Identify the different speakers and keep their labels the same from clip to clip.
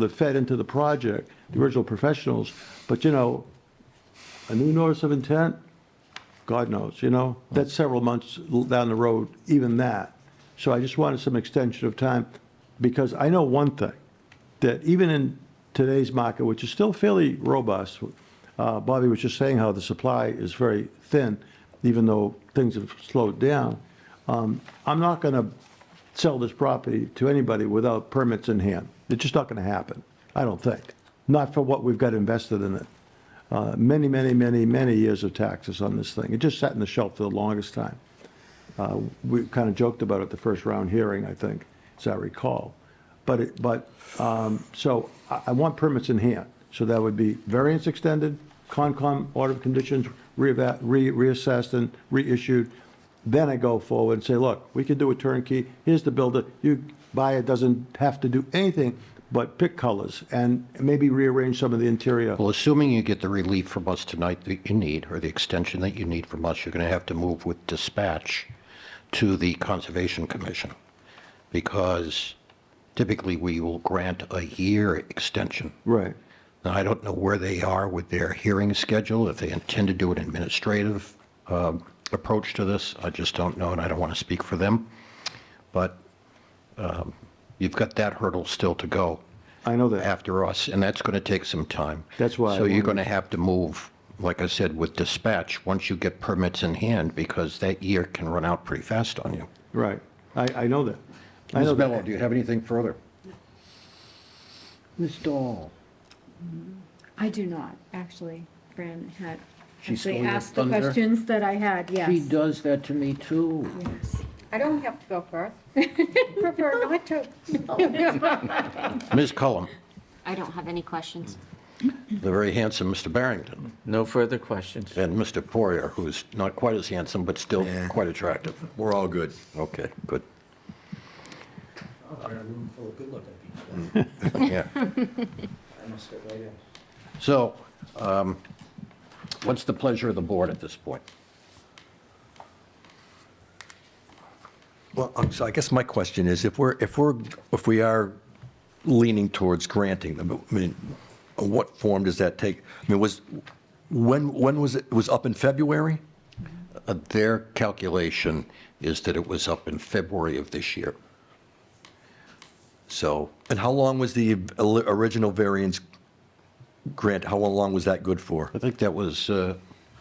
Speaker 1: that fed into the project, the original professionals, but you know, a new notice of intent, God knows, you know? That's several months down the road, even that. So I just wanted some extension of time, because I know one thing, that even in today's market, which is still fairly robust, uh, Bobby was just saying how the supply is very thin, even though things have slowed down. Um, I'm not going to sell this property to anybody without permits in hand. It's just not going to happen, I don't think. Not for what we've got invested in it uh, many, many, many, many years of taxes on this thing. It just sat in the shelf for the longest time. Uh, We kind of joked about it at the first round hearing, I think, as I recall. But, it- but, um, so I I want permits in hand. So that would be variance extended, Concom order of conditions reeva- re- reassessed and reissued. Then I go forward and say, look, we can do a turnkey, here's the builder, you buy it, doesn't have to do anything but pick colors and maybe rearrange some of the interior.
Speaker 2: Well, assuming you get the relief from us tonight that you need, or the extension that you need from us, you're going to have to move with dispatch to the Conservation Commission, because typically we will grant a year extension.
Speaker 1: Right.
Speaker 2: Now, I don't know where they are with their hearing schedule, if they intend to do an administrative um, approach to this. I just don't know, and I don't want to speak for them. But um, you've got that hurdle still to go
Speaker 1: I know that.
Speaker 2: after us, and that's going to take some time.
Speaker 1: That's why I
Speaker 2: So you're
Speaker 1: wanted-
Speaker 2: going to have to move, like I said, with dispatch, once you get permits in hand, because that year can run out pretty fast on you.
Speaker 1: Right. I, I know that. I know
Speaker 2: Ms. Mello, do
Speaker 1: that.
Speaker 2: you have anything further?
Speaker 3: Ms. Dahl,
Speaker 4: I do not, actually. Fran had
Speaker 2: She
Speaker 4: actually
Speaker 2: stole your
Speaker 4: asked the
Speaker 2: thunder?
Speaker 4: questions that I had,
Speaker 3: she
Speaker 4: yes.
Speaker 3: does that to me too.
Speaker 4: Yes.
Speaker 5: I don't have to go first. Prefer not to.
Speaker 2: Ms. Cullum,
Speaker 6: I don't have any questions.
Speaker 2: the very handsome Mr. Barrington,
Speaker 7: No further questions.
Speaker 2: and Mr. Poirier, who's not quite as handsome, but still quite attractive. We're all good. Okay, good. Yeah. So, um, what's the pleasure of the board at this point?
Speaker 8: Well, um, so I guess my question is, if we're, if we're, if we are leaning towards granting them, I mean, what form does that take? I mean, was, when, when was it, it was up in February?
Speaker 2: Uh, Their calculation is that it was up in February of this year. So,
Speaker 8: And how long was the oli- original variance grant, how long was that good for?
Speaker 2: I think that was, uh,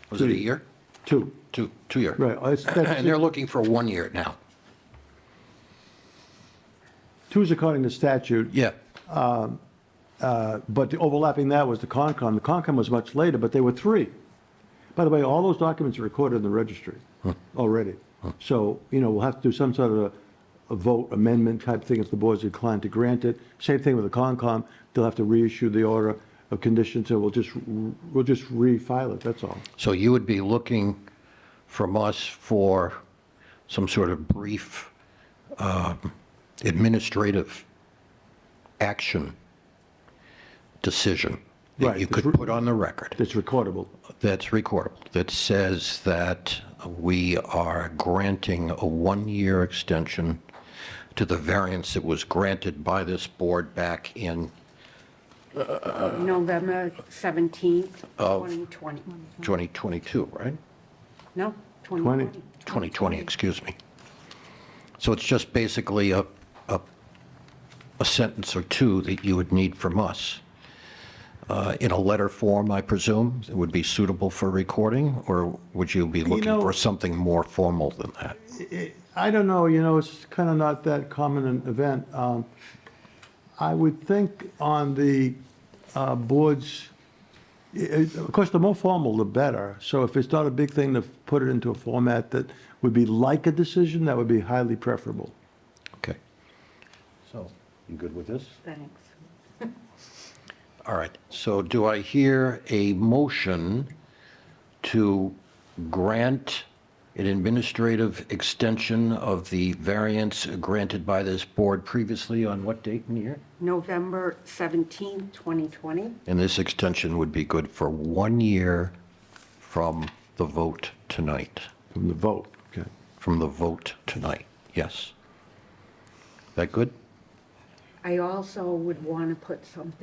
Speaker 2: was it a year?
Speaker 1: Two.
Speaker 2: Two, two year.
Speaker 1: Right. It's-
Speaker 2: And they're
Speaker 1: that's-
Speaker 2: looking for one year now.
Speaker 1: Two is according to statute,
Speaker 2: Yeah,
Speaker 1: but the overlapping that was the Concom. The Concom was much later, but they were three. By the way, all those documents are recorded in the registry already. So, you know, we'll have to do some sort of a- a vote amendment type thing if the board's inclined to grant it. Same thing with the Concom. They'll have to reissue the order of conditions, and we'll just, we'll just refile it, that's all.
Speaker 2: so you would be looking from us for some sort of brief um, administrative action decision that
Speaker 1: Right,
Speaker 2: you
Speaker 1: the
Speaker 2: could
Speaker 1: thr-
Speaker 2: put on the record.
Speaker 1: It's recordable.
Speaker 2: that's recordable, that says that we are granting a one-year extension to the variance that was granted by this board back in
Speaker 5: November 17th, 2020.
Speaker 2: 2022, right?
Speaker 5: No, 2020.
Speaker 2: 2020, excuse me. So it's just basically a, a, a sentence or two that you would need from us. Uh, In a letter form, I presume, it would be suitable for recording, or would you be looking
Speaker 1: know-
Speaker 2: for something more formal than that?
Speaker 1: I don't know, you know, it's kind of not that common an event. Um, I would think on the uh, boards, it- of course, the more formal, the better. So if it's not a big thing to put it into a format that would be like a decision, that would be highly preferable.
Speaker 2: Okay. So, you good with this?
Speaker 5: Thanks.
Speaker 2: All right, so do I hear a motion to grant an administrative extension of the variance granted by this board previously on what date and year?
Speaker 5: November 17th, 2020.
Speaker 2: And this extension would be good for one year from the vote tonight,
Speaker 1: From the vote, okay.
Speaker 2: from the vote tonight, yes. That good?
Speaker 5: I I also would want to put something